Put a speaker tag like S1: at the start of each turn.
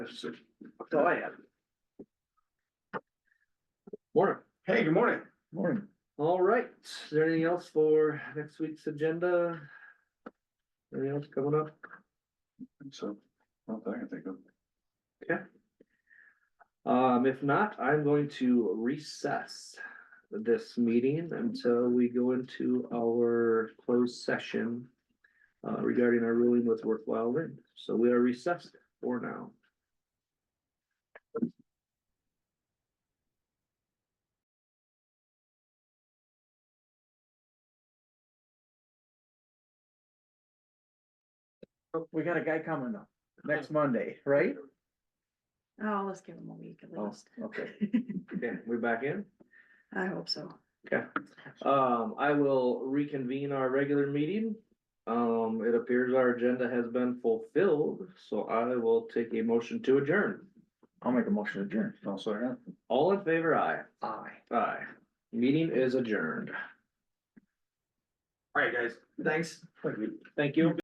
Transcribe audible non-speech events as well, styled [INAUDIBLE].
S1: That's all I have.
S2: Morning.
S1: Hey, good morning.
S2: Morning.
S3: All right, is there anything else for next week's agenda? Anything else coming up?
S2: So, not that I can think of.
S3: Um, if not, I'm going to recess this meeting until we go into our closed session. Uh, regarding our ruling with worthwhile rent, so we are recessed for now.
S1: Oh, We got a guy coming up next Monday, right?
S4: Oh, let's give them a week at
S1: Oh,
S4: least.
S1: okay.
S3: Okay, we're back in.
S4: [LAUGHS] I hope so.
S3: Um, I will reconvene our regular meeting. Um, it appears our agenda has been fulfilled, so I will take a motion to adjourn.
S1: I'll make a motion to adjourn.
S2: Also, yeah.
S3: All in favor, aye.
S1: Aye.
S3: Aye. Meeting is adjourned.
S1: All right, guys. Thanks.
S3: Thank you.